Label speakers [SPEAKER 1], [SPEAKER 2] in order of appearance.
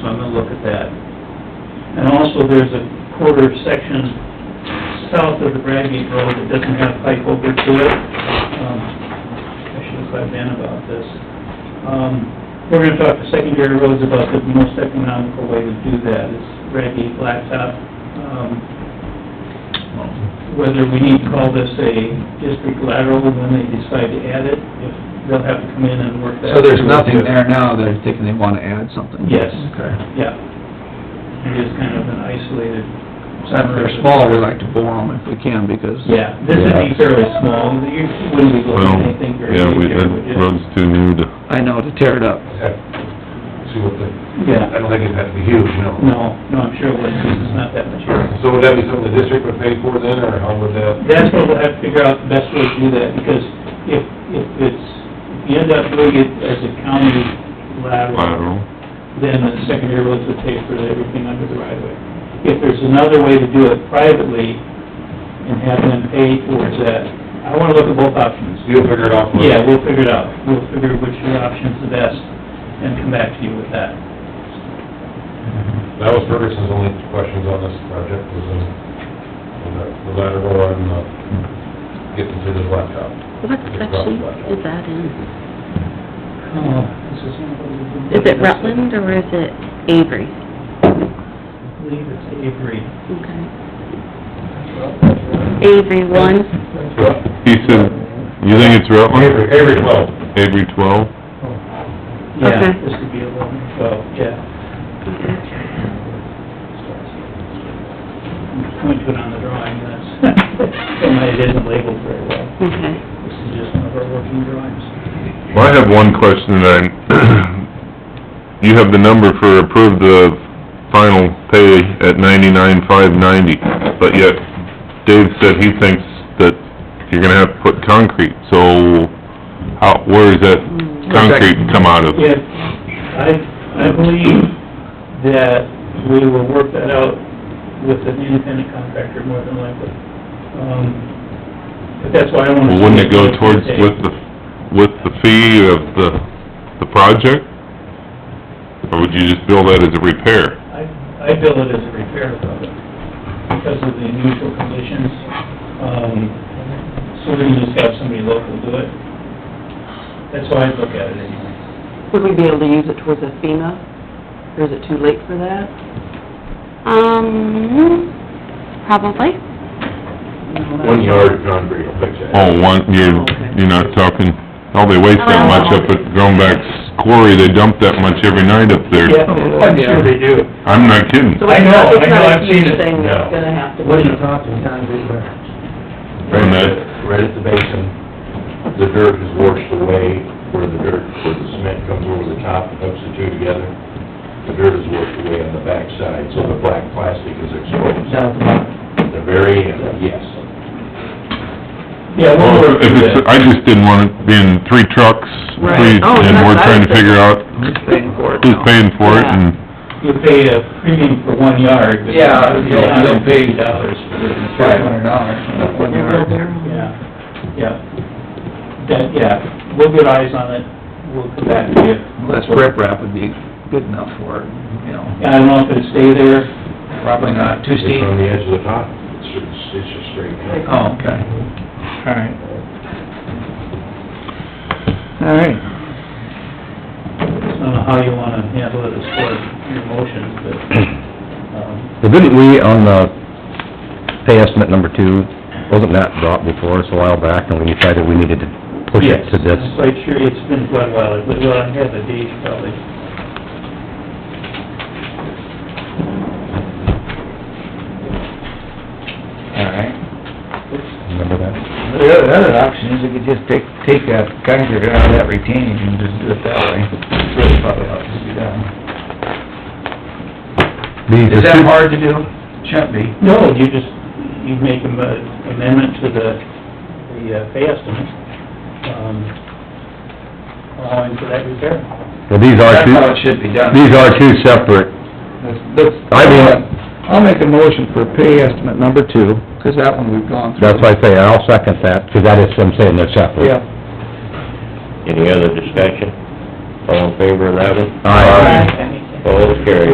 [SPEAKER 1] so I'm gonna look at that. And also, there's a quarter section south of the Bradgate Road that doesn't have pipe over to it. Um, I should have let Ben about this. Um, we're gonna talk to secondary roads about the most economical way to do that, is Bradgate Blacktop. Um, whether we need to call this a district lateral when they decide to add it, if they'll have to come in and work that.
[SPEAKER 2] So there's
[SPEAKER 1] through.
[SPEAKER 2] nothing there now that they're thinking they wanna add something?
[SPEAKER 1] Yes.
[SPEAKER 2] Okay.
[SPEAKER 1] Yeah. It is kind of an isolated.
[SPEAKER 2] So if they're small, we like to bore them if we can, because...
[SPEAKER 1] Yeah, this would be fairly small, you wouldn't be looking
[SPEAKER 3] Well,
[SPEAKER 1] at anything very
[SPEAKER 3] yeah,
[SPEAKER 1] big
[SPEAKER 3] we,
[SPEAKER 1] here,
[SPEAKER 3] that
[SPEAKER 1] would you?
[SPEAKER 3] road's too new to,
[SPEAKER 2] I know, to tear it up.
[SPEAKER 4] See what the, I
[SPEAKER 1] Yeah,
[SPEAKER 4] don't think it'd have to be huge, no.
[SPEAKER 1] no, no, I'm sure it wouldn't, because it's not that much. area.
[SPEAKER 4] So would that be something the district would pay for then, or how would that?
[SPEAKER 1] That's what we'll have to figure out the best way to do that, because if, if it's, if you end up doing it as a county lateral,
[SPEAKER 3] lateral.
[SPEAKER 1] then the secondary roads would pay for everything under the right of way. If there's another way to do it privately and have them pay towards that, I wanna look at both options.
[SPEAKER 4] You'll figure it out. for us.
[SPEAKER 1] Yeah, we'll figure it out. We'll figure which option's the best and come back to you with that.
[SPEAKER 4] That was Ferguson's only questions on this project, was uh, on the the lateral and uh, getting to the blacktop.
[SPEAKER 5] What section is that in? Is it Rutland or is it Avery?
[SPEAKER 1] I believe it's Avery.
[SPEAKER 5] Okay. Avery one,
[SPEAKER 3] He said, you think it's
[SPEAKER 4] Avery,
[SPEAKER 3] Rutland?
[SPEAKER 4] Avery twelve.
[SPEAKER 3] Avery twelve?
[SPEAKER 1] Yeah,
[SPEAKER 5] Okay.
[SPEAKER 1] this could be eleven, twelve, yeah. I'm going to put on the drawing, that's, and it isn't labeled very well.
[SPEAKER 5] okay.
[SPEAKER 1] This is just one of our working drawings.
[SPEAKER 3] Well, I have one question that I, you have the number for approved the final pay at ninety-nine, five ninety, but yet Dave said he thinks that you're gonna have to put concrete, so how, where is that concrete come out of?
[SPEAKER 1] Yeah, I, I believe that we will work that out with an independent contractor more than likely. Um, But that's why I want to...
[SPEAKER 3] Well, wouldn't it go towards with the, with the fee of the, the project? Or would you just bill that as a repair?
[SPEAKER 1] I, I bill it as a repair project because of the unusual conditions. Um, So we can just have somebody local do it. That's why I look at it anyway.
[SPEAKER 6] Would we be able to use it towards a FEMA, or is it too late for that?
[SPEAKER 5] Um, probably.
[SPEAKER 4] One yard of concrete will fix it.
[SPEAKER 3] Oh, one, you're, you're not talking, oh, they waste that much up at Groenback's quarry, they dump that much every night up there.
[SPEAKER 2] I'm sure they
[SPEAKER 1] do.
[SPEAKER 3] I'm not kidding.
[SPEAKER 6] So
[SPEAKER 1] I
[SPEAKER 6] it's not-
[SPEAKER 1] know, I
[SPEAKER 6] it's
[SPEAKER 1] know,
[SPEAKER 6] not a
[SPEAKER 1] I've seen it.
[SPEAKER 6] huge thing that's
[SPEAKER 4] No.
[SPEAKER 6] gonna have to be.
[SPEAKER 7] What are you talking, John Gruber?
[SPEAKER 4] Right at, the- right at the basin, the dirt is washed away, where the dirt, where the cement comes over the top and hooks the two together. The dirt is washed away on the backside, so the black plastic is exposed.
[SPEAKER 7] Sounds like-
[SPEAKER 4] At the very end, yes.
[SPEAKER 1] Yeah, we'll
[SPEAKER 3] Well,
[SPEAKER 1] work
[SPEAKER 3] if
[SPEAKER 1] through
[SPEAKER 3] it's,
[SPEAKER 1] that.
[SPEAKER 3] I just didn't want it being three trucks,
[SPEAKER 6] Right.
[SPEAKER 3] three,
[SPEAKER 6] Oh,
[SPEAKER 3] and
[SPEAKER 6] that's
[SPEAKER 3] we're
[SPEAKER 6] what I
[SPEAKER 3] trying to
[SPEAKER 6] was
[SPEAKER 3] figure out
[SPEAKER 2] Who's paying for it
[SPEAKER 3] who's
[SPEAKER 2] now?
[SPEAKER 3] paying for it and...
[SPEAKER 1] You pay a premium for one yard. but
[SPEAKER 7] Yeah, you'll- you'll pay-
[SPEAKER 1] dollars for the...
[SPEAKER 7] Five hundred dollars. one yard.
[SPEAKER 1] Yeah, yeah. That, yeah, we'll get eyes on it, we'll come back to you.
[SPEAKER 2] Less rip rap would be good enough for it, you know,
[SPEAKER 1] Yeah, I don't know if it'll stay there,
[SPEAKER 2] probably not too steep.
[SPEAKER 4] It's on the edge of the top, it's just, it's just straight.
[SPEAKER 2] Oh, okay. All right. All right.
[SPEAKER 1] I don't know how you wanna handle it as far as your motions, but, um,
[SPEAKER 8] Well, didn't we on the pay estimate number two, wasn't that brought before us a while back and we decided we needed to push it to this?
[SPEAKER 1] Yes, I'm quite sure, it's been quite a while, but we'll have the date probably.
[SPEAKER 2] All right.
[SPEAKER 8] Remember that?
[SPEAKER 2] The other, other option is we could just take, take that concrete out of that retaining and just do it that way. It's really probably ought to be done.
[SPEAKER 8] The-
[SPEAKER 2] Is that hard to do? Shouldn't be.
[SPEAKER 1] No, you just, you make an amendment to the, the uh, pay estimate, um, allowing for that repair.
[SPEAKER 8] Well, these are
[SPEAKER 2] That's how it
[SPEAKER 8] two,
[SPEAKER 2] should be done.
[SPEAKER 8] these are two separate,
[SPEAKER 2] Let's,
[SPEAKER 8] I want-
[SPEAKER 2] I'll make a motion for pay estimate number two, 'cause that one we've gone through.
[SPEAKER 8] that's why I say I'll second that, because that is, I'm saying they're separate.
[SPEAKER 2] Yeah.
[SPEAKER 9] Any other discussion? All in favor of that one?
[SPEAKER 8] Aye.
[SPEAKER 2] Oh,
[SPEAKER 9] All carried.